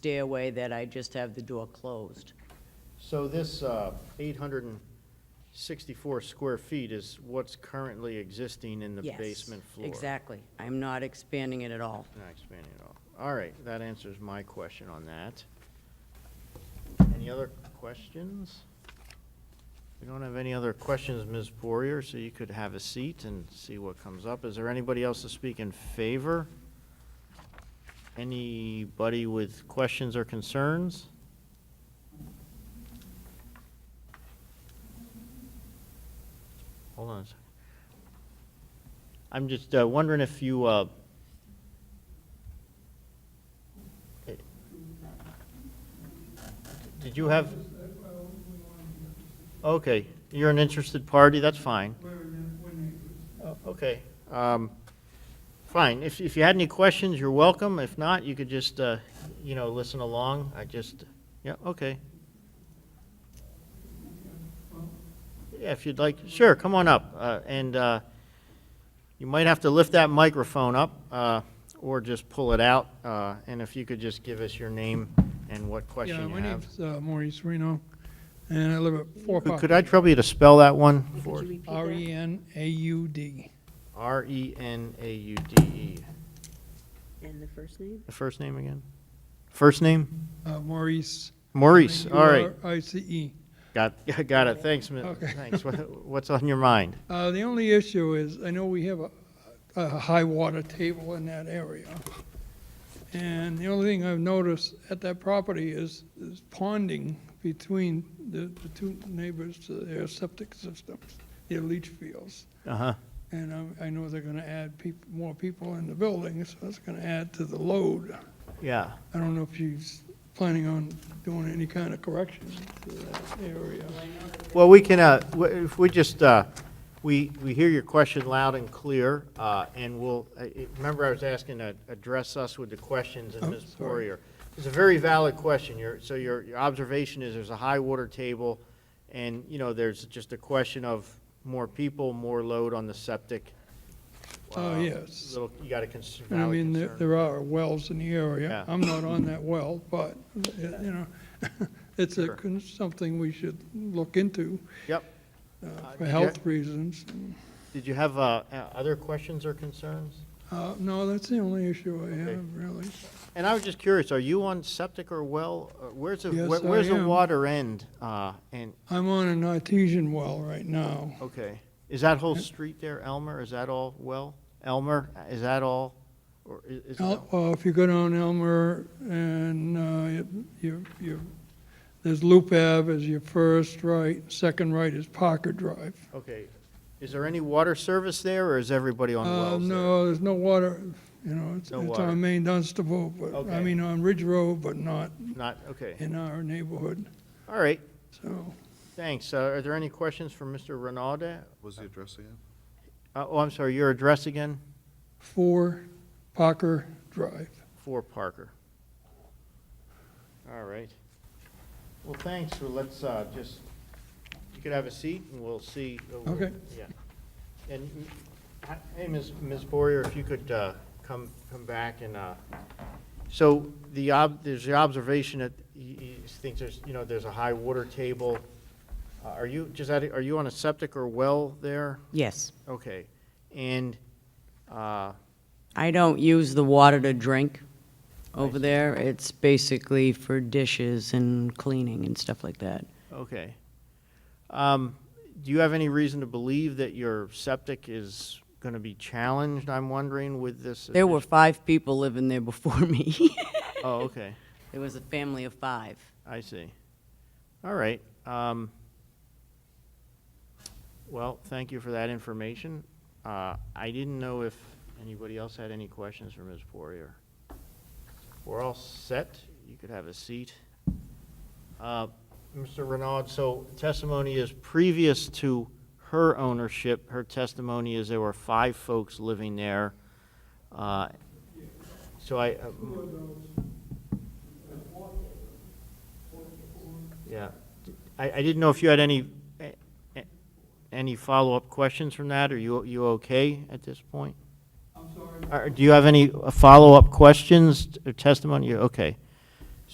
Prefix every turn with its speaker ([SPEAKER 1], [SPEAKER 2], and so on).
[SPEAKER 1] stairway that I just have the door closed.
[SPEAKER 2] So this uh, 864 square feet is what's currently existing in the
[SPEAKER 1] Yes,
[SPEAKER 2] basement floor?
[SPEAKER 1] Exactly. I'm not expanding it at all.
[SPEAKER 2] Not expanding at all. All right, that answers my question on that. Any other questions? We don't have any other questions, Ms. Poirier, so you could have a seat and see what comes up. Is there anybody else to speak in favor? Anybody with questions or concerns? Hold on a second. I'm just uh, wondering if you, uh, eh, did you have? Okay, you're an interested party, that's fine. Oh, Okay, um, fine. If, if you had any questions, you're welcome. If not, you could just, uh, you know, listen along. I just, yeah, okay. Yeah, if you'd like, sure, come on up. Uh, And uh, you might have to lift that microphone up uh, or just pull it out. Uh, And if you could just give us your name and what question you
[SPEAKER 3] Yeah, my
[SPEAKER 2] have.
[SPEAKER 3] name's uh, Maurice Reno, and I live at Four E
[SPEAKER 2] Could-
[SPEAKER 3] Park.
[SPEAKER 2] Could I trouble you to spell that one for
[SPEAKER 4] Could you
[SPEAKER 2] us?
[SPEAKER 4] repeat that?
[SPEAKER 3] R-E-N-A-U-D.
[SPEAKER 2] R E N A U D E.
[SPEAKER 4] And the first name?
[SPEAKER 2] The first name again? First name?
[SPEAKER 3] Uh, Maurice.
[SPEAKER 2] Maurice, all right.
[SPEAKER 3] R-I-C-E.
[SPEAKER 2] Got, got it, thanks, mi-
[SPEAKER 3] Okay.
[SPEAKER 2] thanks. What- What's on your mind?
[SPEAKER 3] Uh, The only issue is, I know we have a, a high water table in that area. And the only thing I've noticed at that property is, is ponding between the, the two neighbors to their septic systems, their leach fields.
[SPEAKER 2] Uh-huh,
[SPEAKER 3] And um, I know they're gonna add peop- more people in the building, so that's gonna add to the load.
[SPEAKER 2] yeah.
[SPEAKER 3] I don't know if she's planning on doing any kind of corrections to that area.
[SPEAKER 2] Well, we can, uh, w- if we just, uh, we, we hear your question loud and clear, uh, and we'll, I- I- remember I was asking to address us with the questions and
[SPEAKER 3] Oh,
[SPEAKER 2] Ms.
[SPEAKER 3] sorry.
[SPEAKER 2] Poirier. It's a very valid question. Your, so your, your observation is there's a high water table, and, you know, there's just a question of more people, more load on the septic.
[SPEAKER 3] Oh,
[SPEAKER 2] Uh,
[SPEAKER 3] yes.
[SPEAKER 2] Little, you got a concern,
[SPEAKER 3] I
[SPEAKER 2] valid
[SPEAKER 3] mean, there,
[SPEAKER 2] concern.
[SPEAKER 3] there are wells in the area.
[SPEAKER 2] Yeah.
[SPEAKER 3] I'm not on that well, but, you know, it's a,
[SPEAKER 2] Sure.
[SPEAKER 3] con- something we should look into
[SPEAKER 2] Yep.
[SPEAKER 3] uh,
[SPEAKER 2] Uh,
[SPEAKER 3] for
[SPEAKER 2] yeah.
[SPEAKER 3] health reasons.
[SPEAKER 2] Did you have, uh, uh, other questions or concerns?
[SPEAKER 3] Uh, no, that's the only issue I
[SPEAKER 2] Okay.
[SPEAKER 3] have, really.
[SPEAKER 2] And I was just curious, are you on septic or well? Uh, Where's the,
[SPEAKER 3] Yes,
[SPEAKER 2] where-
[SPEAKER 3] I
[SPEAKER 2] where's the
[SPEAKER 3] am.
[SPEAKER 2] water end? Uh, and,
[SPEAKER 3] I'm on an artesian well right now.
[SPEAKER 2] okay. Is that whole street there, Elmer, is that all well? Elmer, is that all? Or i- is,
[SPEAKER 3] El- Uh, if you go down Elmer and, uh, you, you, there's Loop Ave as your first right, second right is Parker Drive.
[SPEAKER 2] okay. Is there any water service there or is everybody on
[SPEAKER 3] Uh,
[SPEAKER 2] wells there?
[SPEAKER 3] no, there's no water, you know, it's,
[SPEAKER 2] No
[SPEAKER 3] it's
[SPEAKER 2] water.
[SPEAKER 3] on Main Dunstable, but, I
[SPEAKER 2] Okay.
[SPEAKER 3] mean, on Ridge Road, but not
[SPEAKER 2] Not, okay.
[SPEAKER 3] in our neighborhood,
[SPEAKER 2] All right,
[SPEAKER 3] so.
[SPEAKER 2] thanks. Uh, are there any questions for Mr. Renada?
[SPEAKER 5] Was the address again?
[SPEAKER 2] Uh, oh, I'm sorry, your address again?
[SPEAKER 3] Four Parker Drive.
[SPEAKER 2] for Parker. All right. Well, thanks, well, let's, uh, just, you could have a seat, and we'll see. uh, we'll-
[SPEAKER 3] Okay.
[SPEAKER 2] Yeah. And, mm, I- hey, Ms. Ms. Boyer, if you could, uh, come, come back and, uh, so the ob, there's the observation that he, he thinks there's, you know, there's a high water table. Uh, Are you, just, out of- are you on a septic or well there?
[SPEAKER 1] Yes.
[SPEAKER 2] Okay. And, uh,
[SPEAKER 1] I don't use the water to drink
[SPEAKER 2] I
[SPEAKER 1] over
[SPEAKER 2] see.
[SPEAKER 1] there. It's basically for dishes and cleaning and stuff like that.
[SPEAKER 2] Okay. Um, Do you have any reason to believe that your septic is going to be challenged, I'm wondering, with this?
[SPEAKER 1] There were
[SPEAKER 2] addition-
[SPEAKER 1] five people living there before me.
[SPEAKER 2] Oh, okay,
[SPEAKER 1] It was a family of five.
[SPEAKER 2] I see. All right. um, Well, thank you for that information. Uh, I didn't know if anybody else had any questions for Ms. Poirier. We're all set. You could have a seat. Uh, Mr. Renaud, so testimony is previous to her ownership, her testimony is there were five folks living there. Uh, So I. uh, Yeah, I, I didn't know if you had any, eh, eh, any follow-up questions from that, are you, you okay at this point?
[SPEAKER 3] I'm sorry.
[SPEAKER 2] Are- Do you have any uh, follow-up questions or testimony? You- Okay.